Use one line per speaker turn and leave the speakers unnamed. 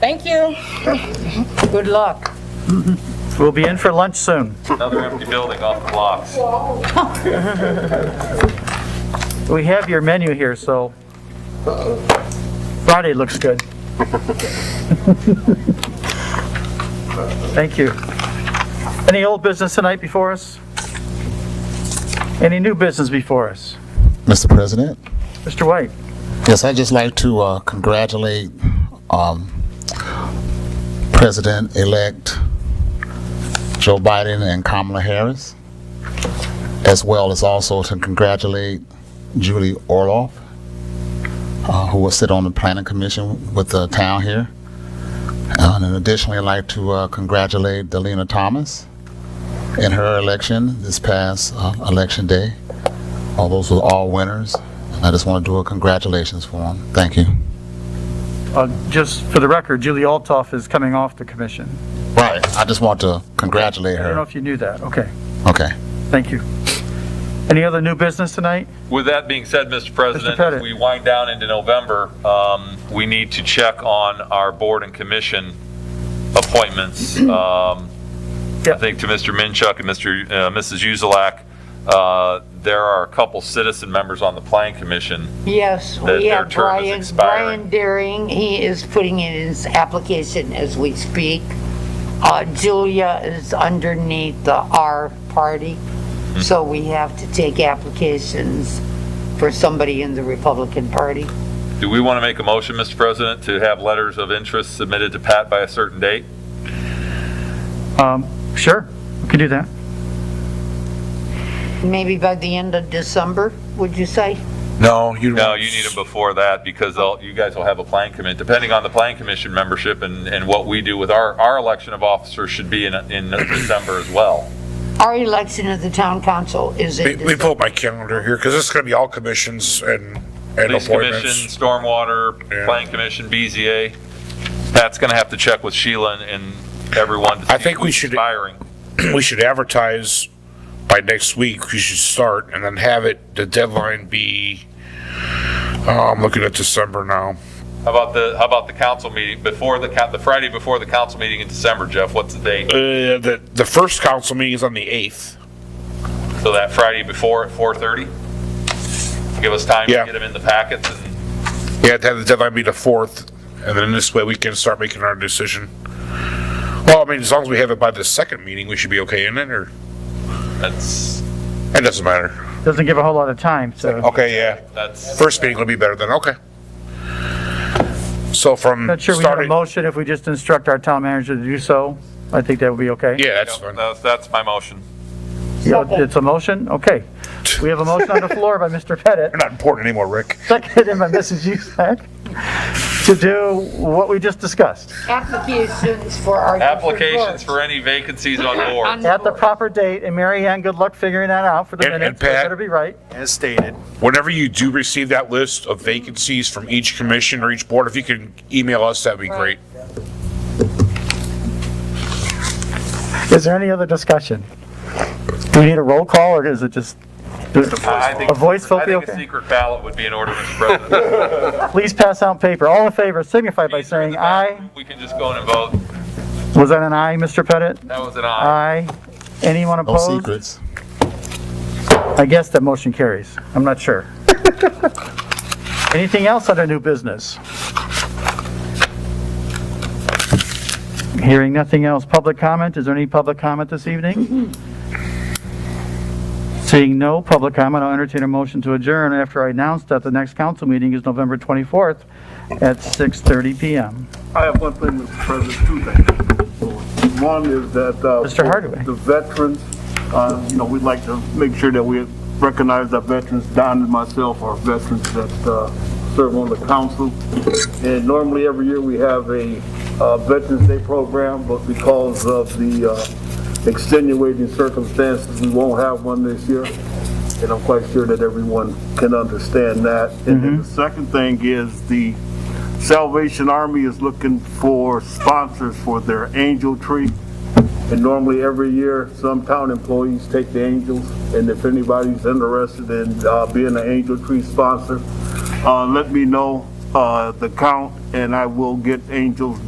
Thank you.
Good luck.
We'll be in for lunch soon.
Another empty building off the blocks.
We have your menu here, so Friday looks good. Thank you. Any old business tonight before us? Any new business before us?
Mr. President.
Mr. White?
Yes, I'd just like to uh, congratulate um, President-elect Joe Biden and Kamala Harris, as well as also to congratulate Julie Orloff, uh, who will sit on the Planning Commission with the town here. And then additionally, I'd like to uh, congratulate Delina Thomas in her election this past uh, election day. All those were all winners. And I just want to do a congratulations for them. Thank you.
Uh, Just for the record, Julie Altoff is coming off the commission.
Right. I just want to congratulate
I don't know
her.
if you knew that. Okay,
Okay.
thank you. Any other new business tonight?
With that being said, Mr. President,
Pettit.
as we wind down into November, um, we need to check on our board and commission appointments. Um, I
Yeah.
think to Mr. Minchuk and Mr., uh, Mrs. Uzelak, uh, there are a couple citizen members on the planning commission.
Yes,
Their-
we
their
have
term is
Brian,
expiring.
Brian Deering. He is putting in his application as we speak. Uh, Julia is underneath the R party,
Hmm.
so we have to take applications for somebody in the Republican Party.
Do we want to make a motion, Mr. President, to have letters of interest submitted to Pat by a certain date?
Um, Sure, we can do that.
Maybe by the end of December, would you say?
No, you.
No, you need them before that because they'll, you guys will have a plan commit, depending on the plan commission membership and, and what we do with our, our election of officers should be in, in December as well.
Our election of the town council is
Let
in
me- Let me
December.
pull up my calendar here, because this is gonna be all commissions and, and
Police commission,
appointments.
stormwater,
Yeah.
plan commission, BZA. Pat's gonna have to check with Sheila and and everyone. to
I
see
think we
who's
should-
Expiring.
We should advertise by next week, we should start, and then have it, the deadline be, oh, I'm looking at December now.
How about the, how about the council meeting, before the, coun- the Friday before the council meeting in December, Jeff, what's the date?
Uh, the, the first council meeting is on the eighth.
So that Friday before at 4:30? Give us time to
Yeah.
get them in the packets and.
Yeah, to have the deadline be the fourth, and then this way we can start making our decision. Well, I mean, as long as we have it by the second meeting, we should be okay in it, or,
That's,
it doesn't matter.
Doesn't give a whole lot of time, so
Okay, yeah.
that's,
First meeting will be better than okay. So from
not sure we have a
starting,
motion if we just instruct our town manager to do so. I think that would be okay.
yeah, that's fine.
that's, that's my motion.
Yeah, It's a motion? Okay. We have a motion on the floor by Mr. Pettit,
They're not important anymore, Rick.
seconded by Mrs. Usack, to do what we just discussed.
Applications for our. different
Applications
boards.
for any vacancies on board.
At the proper date, and Mary Ann, good luck figuring that out for the
And- and
minutes. It
Pat?
better be right.
As stated.
Whenever you do receive that list of vacancies from each commission or each board, if you can email us, that'd be great.
Is there any other discussion? Do we need a roll call, or is it just,
I think-
a voice vote
I
be
think a
okay?
secret ballot would be in order, Mr. President.
Please pass out paper. All in favor signify by saying aye.
We can just go in and vote.
Was that an aye, Mr. Pettit?
That was an aye.
Aye. Anyone
No
opposed?
secrets.
I guess that motion carries. I'm not sure. Anything else under new business? Hearing nothing else. Public comment? Is there any public comment this evening? Seeing no public comment, I'll entertain a motion to adjourn after I announce that the next council meeting is November 24th at 6:30 PM.
I have one thing, Mr. President, two things. One is that. uh,
Mr. Hardaway.
The veterans, uh, you know, we'd like to make sure that we recognize our veterans. Don and myself are veterans that uh, serve on the council. And normally every year we have a uh, Veterans Day program, but because of the uh, extenuating circumstances, we won't have one this year and I'm quite sure that everyone can understand that. And then the second thing is the Salvation Army is looking for sponsors for their angel tree. And normally every year, some town employees take the angels, and if anybody's interested in uh, being an angel tree sponsor, uh, let me know uh, the count, and I will get angels